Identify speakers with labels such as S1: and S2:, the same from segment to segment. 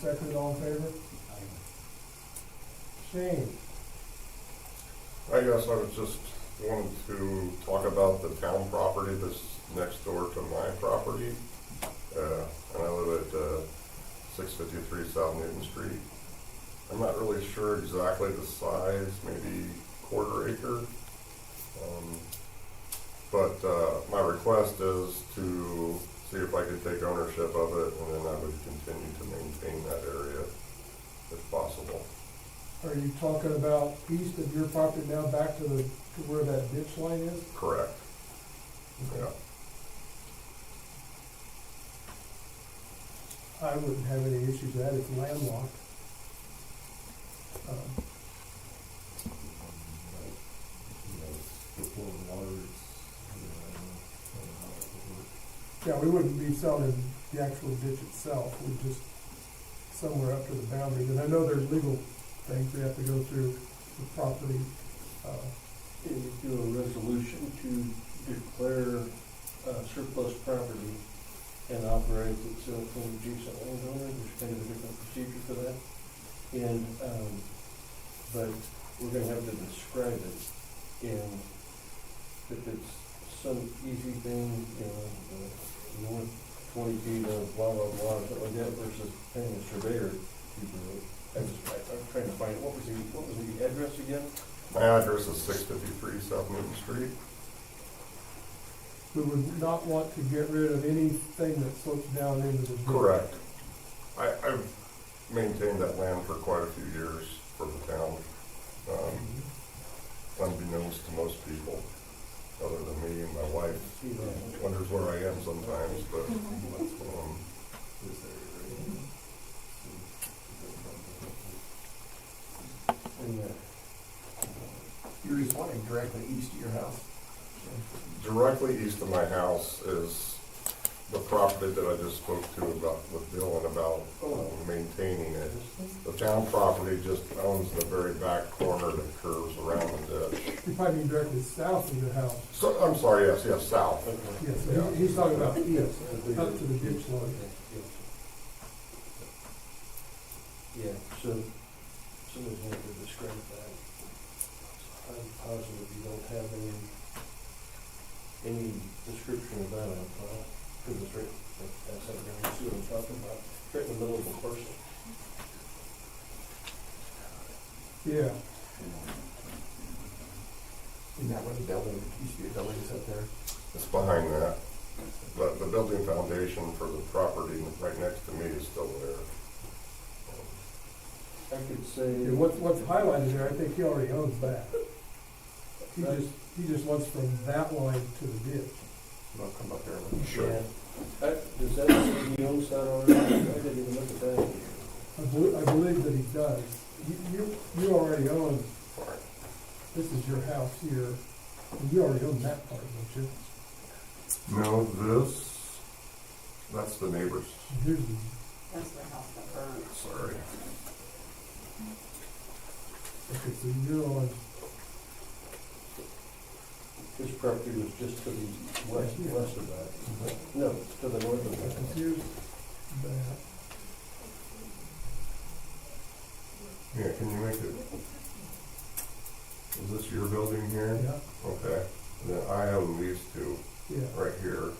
S1: Second, all in favor? Shane,
S2: I guess I was just wanted to talk about the town property that's next door to my property. Uh, and I live at, uh, six fifty-three South Newton Street. I'm not really sure exactly the size, maybe quarter acre. Um, But, uh, my request is to see if I could take ownership of it and then I would continue to maintain that area if possible.
S1: are you talking about east of your property now back to the, to where that ditch line is?
S2: Correct, yeah.
S1: I wouldn't have any issues with that, it's landlocked. Um, Yeah, we wouldn't be selling the actual ditch itself, we'd just somewhere up to the boundaries. And I know there's legal things we have to go through the property. uh,
S3: Can you do a resolution to declare uh, surplus property and operate itself in adjacent landowner? There's kind of a different procedure for that. And, um, but we're gonna have to describe it. And if it's some easy thing, you know, uh, north twenty feet of blah, blah, blah, something like that versus paying a surveyor to do it. I was, I- I'm trying to find, what was the, what was the address again?
S2: My address is six fifty-three South Newton Street.
S1: We would not want to get rid of anything that slopes down into the ditch.
S2: Correct. I, I've maintained that land for quite a few years for the town, um, unbeknownst to most people, other than me and my wife.
S3: See
S4: uh,
S3: that?
S2: Wonders where I am sometimes, but,
S3: Mm-hmm.
S2: um,
S3: in that
S4: You're just wanting directly east of your house.
S2: directly east of my house is the property that I just spoke to about, with Dylan about um, maintaining it. The town property just owns the very back corner that curves around the ditch.
S1: You probably mean directly south of your house.
S2: So, I'm sorry, yes, yes, south.
S3: Okay.
S1: Yes,
S2: Yeah.
S1: he- he's talking about, yes, up to the ditch line.
S3: Yeah, so someone's going to describe that. I'm positive you don't have any, any description of that, because it's right, that's what I'm see what I'm talking about, right in the middle of the parcel.
S1: Yeah,
S4: Isn't that where the building, used to be a building that's up there?
S2: It's behind that. But the building foundation for the property right next to me is still there.
S3: I could say.
S1: and what's, what's highlighted there, I think he already owns that. He
S3: Right.
S1: just, he just wants from that line to the ditch.
S4: I'll come up there. and-
S2: Sure.
S3: Yeah. I- Does that, he owns that already? I didn't even look at that.
S1: I believe, I believe that he does. You, you, you already own, this is your house here, and you already own that part, don't you?
S2: No, this, that's the neighbor's,
S1: And Here's the,
S5: That's the house that burned.
S2: sorry.
S1: okay, so you're on,
S3: His property was just to the west, west of that. No, to the north of
S1: okay,
S3: that.
S1: here's that.
S2: Yeah, can you make it? Is this your building here?
S1: Yeah,
S2: Okay, then I own these two
S1: yeah.
S2: right here,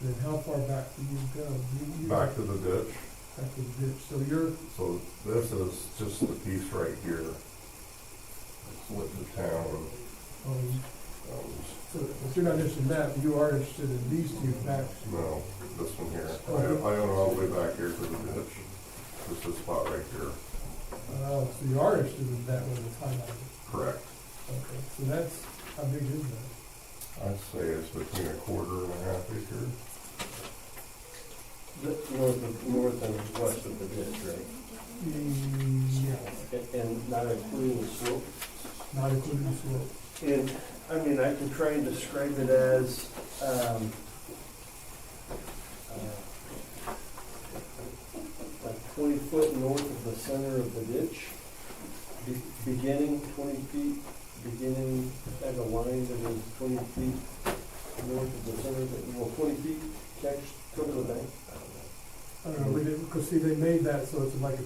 S1: Then how far back do you go? You- you-
S2: back to the ditch.
S1: Back to the ditch, so you're,
S2: So this is just the piece right here. It's with the town,
S1: um,
S2: um,
S1: So if you're not interested in that, you are interested in these two facts.
S2: No, this one here. I, I own all the way back here to the ditch. This is spot right here.
S1: Uh, so you are interested in that one that's highlighted.
S2: Correct.
S1: Okay, so that's, how big is that?
S2: I'd say it's between a quarter and a half acre.
S3: That's north of, north and west of the ditch, right?
S1: Yeah,
S3: And- And not including the slope.
S1: not including the slope.
S3: And, I mean, I can try and describe it as, um, uh, like twenty foot north of the center of the ditch, be- beginning twenty feet, beginning at a line that is twenty feet north of the center, of the well, twenty feet, catch, cover the bank. I don't know.
S1: I don't know, we didn't, because see, they made that so it's like a